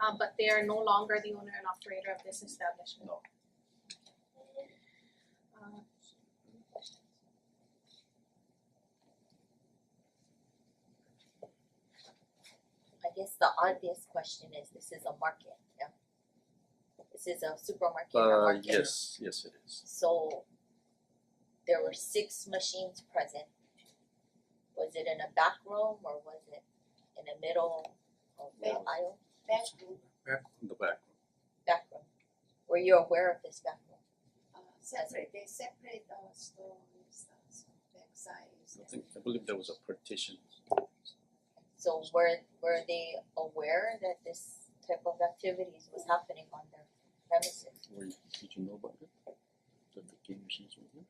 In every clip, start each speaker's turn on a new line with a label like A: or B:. A: uh but they are no longer the owner and operator of this establishment.
B: No.
A: Uh,
C: I guess the obvious question is, this is a market, yeah? This is a supermarket or
B: Uh
C: market.
B: yes, yes it is.
C: So there were six machines present. Was it in a back room or was it in the middle of the
B: Yeah.
C: aisle,
D: bedroom,
B: In the back.
C: back room? Were you aware of this back room?
D: uh separate, they separate our stores, uh so backside is
B: I think I believe there was a partition.
C: So were were they aware that this type of activities was happening on their premises?
E: Were you, did you know about it? That the game machines were here?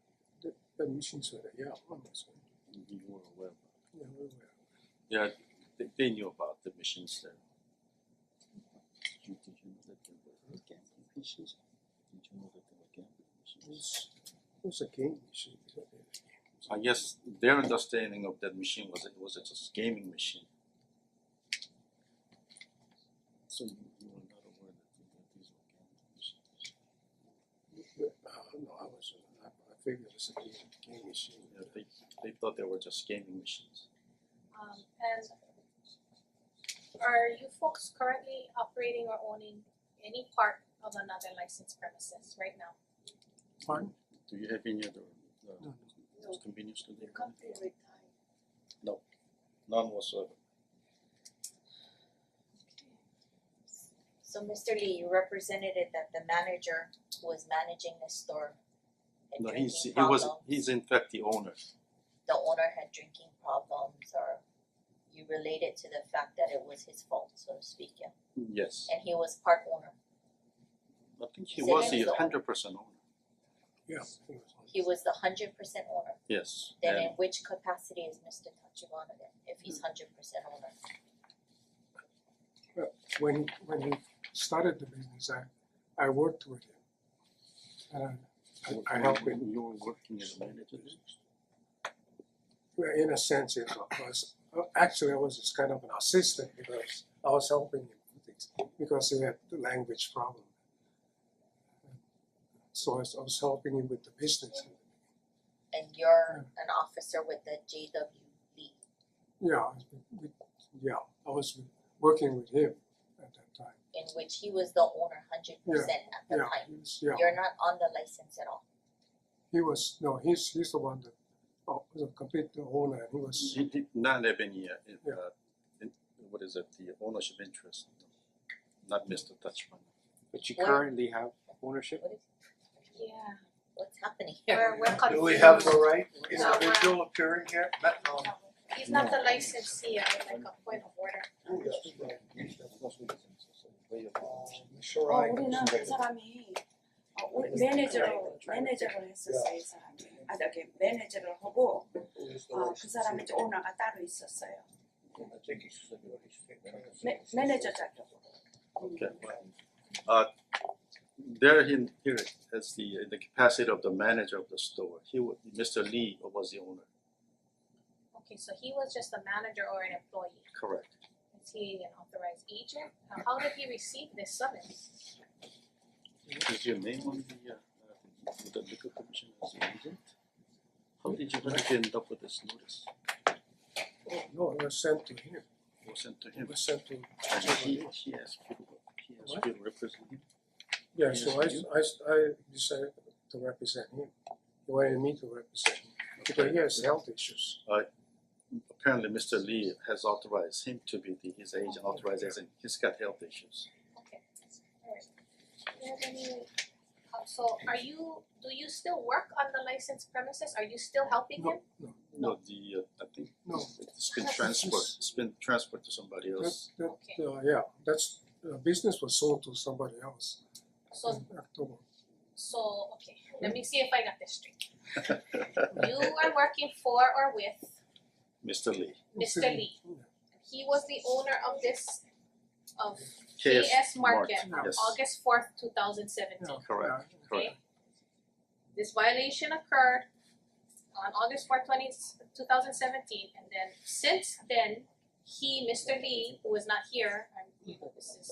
F: The machines were there, yeah, one was there.
E: And you were aware of it?
F: Yeah, we were.
B: Yeah, they they knew about the machines there.
E: Did you, did you know that there were gambling machines? Did you know that there were gambling
F: It
E: machines?
F: was, it was a game machine. it was a-
B: I guess their understanding of that machine was it was just a gaming machine.
E: So you, you were not aware that, th- that these were gambling machines?
F: but, uh, no, I was, I I figured it was a game, game machine.
B: Yeah, they they thought they were just gaming machines.
A: um and are you folks currently operating or owning any part of another licensed premises right now?
F: Pardon?
B: Do you have any other
F: No,
B: uh convenience store
D: the
B: there?
D: company retired.
B: None whatsoever.
C: So Mister Lee, you represented it that the manager who was managing the store had
B: No,
C: drinking
B: he's he
C: problems.
B: was he's in fact the owner.
C: The owner had drinking problems or you related to the fact that it was his fault, so to speak, yeah?
B: Yes.
C: And he was part owner.
B: I think he
C: So he
B: was the
C: was the owner.
B: hundred percent owner.
F: Yeah, I think it was one.
C: He was the hundred percent owner.
B: Yes.
C: Then
B: and-
C: in which capacity is Mister Tachibana then, if
B: Hmm.
C: he's hundred percent owner?
F: When, when he started the business, I, I worked with him. And I- I, I helped him,
B: You were working as a manager.
F: Well, in a sense, it was, uh, actually, I was just kind of an assistant because I was helping him with things, because he had the language problem. So I was, I was helping him with the business.
C: And you're
F: Hmm.
C: an officer with the J W B.
F: Yeah, I was with- with- yeah, I was working with him at that time.
C: in which he was the owner hundred percent at the
F: Yeah,
C: time.
F: he was, yeah,
C: You're not on the license at all.
F: he was, no, he's, he's the one that, oh, the complete owner, he was,
B: He did not have any uh, in-
F: Yeah.
B: uh, in- what is it, the ownership interest, not Mr. Touchman.
G: But you
C: Well-
G: currently have ownership?
C: What is
A: Yeah.
C: what's happening
A: We're
C: here?
A: we're confused.
H: Do we have the right
A: No, we're-
H: individual appearing here? Not, no.
A: He's not the licensee, I would like a point of order.
I: 어, 우리는 그 사람이 어, 우리 매니저로 매니저로 했었어요 이 사람이 아 저기 매니저를 하고 어, 그 사람이 이제 오너가 따로 있었어요 매, 매니저 자격
B: Okay. Uh, there he here as the in the capacity of the manager of the store. He wa- Mr. Lee was the owner.
A: Okay, so he was just a manager or an employee,
B: Correct.
A: is he an authorized agent? Uh, How did he receive this summons?
B: Is your name on the uh, uh, with the liquor commission as the agent? How did you how did you end up with this notice?
F: no, he was sent to him,
B: It was sent to
F: he
B: him.
F: was sent to,
B: And he he asked you to- he asked you to represent him.
F: yeah, so I,
B: Yes, you.
F: I, I decided to represent him. He wanted me to represent him, because he has health issues.
B: apparently Mr. Lee has authorized him to be the, his agent, authorized as in he's got health issues.
A: Okay, alright. Do you have any, uh, so are you, do you still work on the licensed premises? Are you still helping
F: No.
A: him?
B: No, the, uh, I think
F: No.
B: it's been transferred, it's been transferred to somebody
F: That,
B: else.
F: that,
A: Okay.
F: uh, yeah, that's, uh, business was sold to somebody else
A: So
F: in October.
A: so, okay, let me see if I got this straight. You are working for or with
B: Mr. Lee,
A: Mr. Lee. He was the owner of this of
B: KS
A: KS Market
F: Market,
A: from
B: yes.
A: August fourth, two thousand seventeen.
F: Yeah,
B: correct,
F: yeah.
B: correct.
A: This violation occurred on August fourth, twenty, two thousand seventeen, and then since then, he, Mister Lee, who is not here, I'm, this is